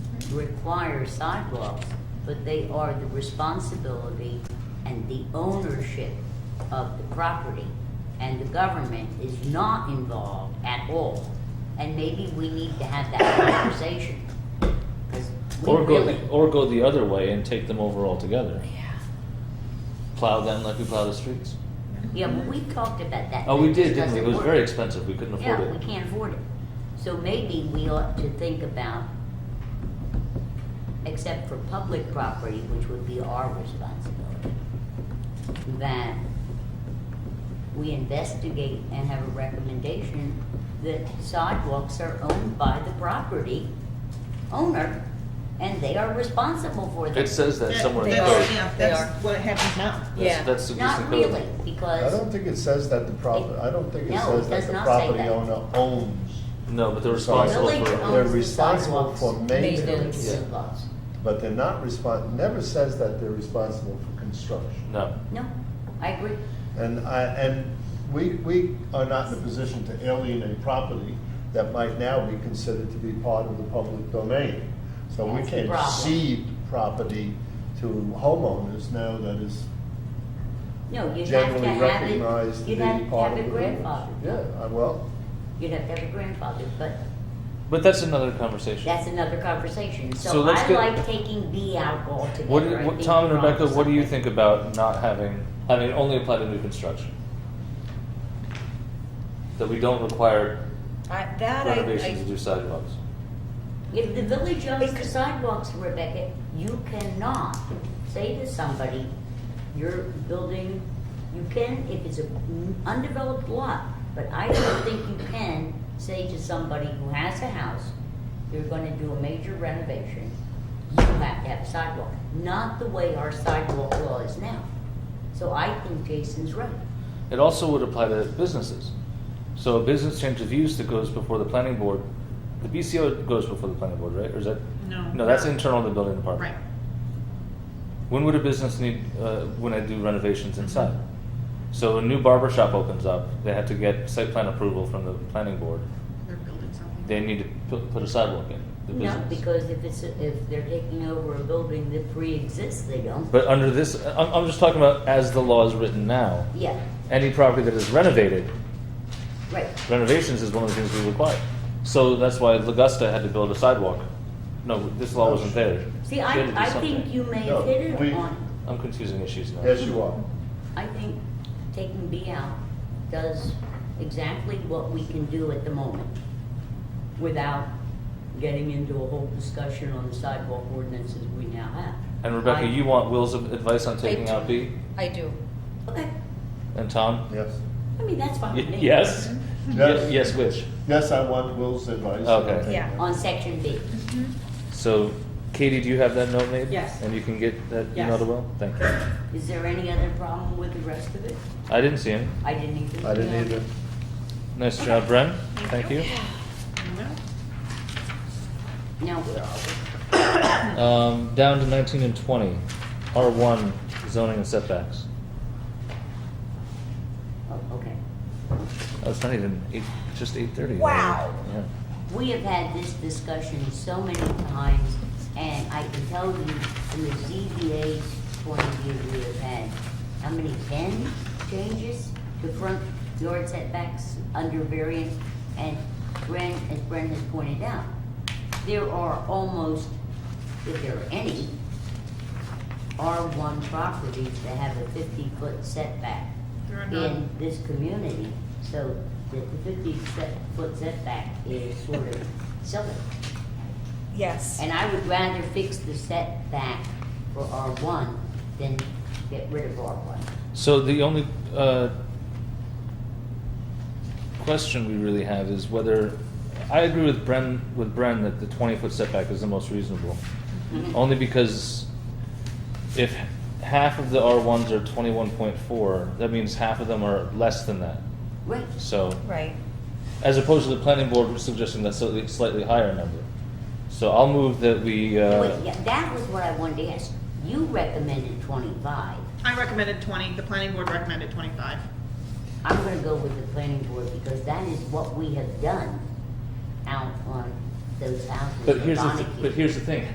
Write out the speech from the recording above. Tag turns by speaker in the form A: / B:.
A: require sidewalks, but they are the responsibility and the ownership of the property. And the government is not involved at all. And maybe we need to have that conversation. 'cause we
B: Or go,
A: really-
B: the- or go the other way and take them over altogether.
A: Yeah.
B: Plow them like we plow the streets.
A: Yeah, but we talked about that.
B: Oh, we
A: It just
B: did, didn't we? It
A: doesn't
B: was
A: work.
B: very expensive. We couldn't afford
A: Yeah, we
B: it.
A: can't afford it. So maybe we ought to think about, except for public property, which would be our responsibility, that we investigate and have a recommendation that sidewalks are owned by the property owner, and they are responsible for them.
B: It says that uh, somewhere in
C: They
B: the
C: are,
B: code.
C: yeah,
D: They
C: that's
D: are.
C: what happens now.
B: That's-
D: Yeah.
B: That's the
A: Not
B: Houston
A: really,
B: code.
A: because.
E: I don't think it says that the property, I don't think it
A: No, it
E: says
A: does
E: that the
A: not say
E: property
A: that.
E: owner owns,
B: No, but they're
E: Sorry.
B: responsible
A: Village
B: for,
A: owns
E: They're
A: the
E: responsible
A: sidewalks.
E: for maintenance.
A: They do,
B: Yeah.
A: lots.
E: but they're not respon, never says that they're responsible for construction.
B: no.
A: No, I agree.
E: And I, and we, we are not in a position to alienate property that might now be considered to be part of the public domain. So we
A: That's the
E: can't
A: problem.
E: cede property to homeowners now that is
A: No, you'd have to
E: generally
A: have it,
E: recognized to
A: you'd
E: be
A: have to
E: part
A: have
E: of the
A: it
E: village.
A: grandfathered.
E: Yeah, I- well,
A: You'd have to have it grandfathered, but
B: But that's another conversation.
A: that's another conversation.
B: So
A: So
B: let's
A: I
B: get-
A: like taking B out altogether.
B: What,
A: I
B: do- what,
A: think
B: Tom and
A: you're onto
B: Rebecca, what do you
A: something.
B: think about not having, having it only apply to new construction? That we don't require
D: I, that I,
B: renovations to do
D: I,
B: sidewalks?
A: If the village owns the sidewalks, Rebecca, you cannot say to somebody, you're building, you can if it's an undeveloped lot, but I don't think you can say to somebody who has a house, you're gonna do a major renovation, you have to have a sidewalk, not the way our sidewalk law is now. So I think Jason's right.
B: It also would apply to businesses. So a business change of use that goes before the planning board, the BCO goes before the planning board, right? Or is that?
C: No.
B: No, that's internal to the building department.
C: Right.
B: When would a business need, uh, when I do renovations inside? So a new barber shop opens up, they have to get site plan approval from the planning board.
C: They're building something.
B: They need to put, put a sidewalk in, the business.
A: No, because if it's, a- if they're taking over a building that pre-exists, they don't.
B: But under this, I'm, I'm just talking about as the law is written now,
A: Yeah,
B: any property that is renovated,
A: right.
B: renovations is one of the things we require. So that's why Augusta had to build a sidewalk. No, this law wasn't there.
A: See,
B: They
A: I,
B: had to do
A: I
B: something.
A: think you may
E: No,
A: have hit
E: we-
A: it on,
B: I'm confusing issues now.
E: yes, you are.
A: I think taking B out does exactly what we can do at the moment without getting into a whole discussion on the sidewalk ordinances we now have.
B: And Rebecca,
A: I-
B: you want Will's advice on taking
D: do.
B: out B?
D: I do.
A: Okay,
B: And Tom?
E: Yes.
A: I mean, that's fine
B: Y-
A: with me.
B: Yes?
E: Yes.
B: Ye- Yes, which?
E: Yes, I want Will's advice.
B: Okay.
E: I'll take
D: Yeah.
E: that.
A: On section B.
B: So Katie, do you have that note made?
C: Yes.
B: And you can get that email
C: Yes.
B: to Will? Thank you.
A: Is there any other problem with the rest of it?
B: I didn't see him.
A: I didn't even.
E: I didn't either.
B: Nice job, Bren. Thank you.
C: No.
A: Now, where are we?
B: Um, down to nineteen and twenty, R one zoning and setbacks.
A: Oh, okay.
B: Oh, it's not even eight, it's just eight thirty.
D: Wow.
B: Yeah.
A: We have had this discussion so many times, and I can tell you from the ZBA's point of view, we have had, how many, ten changes to front yard setbacks under variance? And Bren, as Bren has pointed out, there are almost, if there are any, R one properties that have a fifty-foot setback
C: There are
A: in
C: none.
A: this community, so the fifty set- foot setback is sort of silly.
D: Yes.
A: And I would rather fix the setback for R one than get rid of R one.
B: So the only, uh, question we really have is whether, I agree with Bren, with Bren that the twenty foot setback is the most reasonable. Only because if half of the R ones are twenty one point four, that means half of them are less than that.
A: Right,
B: So,
D: Right.
B: as opposed to the planning board suggesting that slightly, slightly higher number. So I'll move that we, uh,
A: Wait, yeah, that was what I wanted to ask. You recommended twenty-five.
C: I recommended twenty, the planning board recommended twenty-five.
A: I'm gonna go with the planning board because that is what we have done out on those houses.
B: but
A: in
B: here's the, th-
A: Montague.
B: but here's the thing.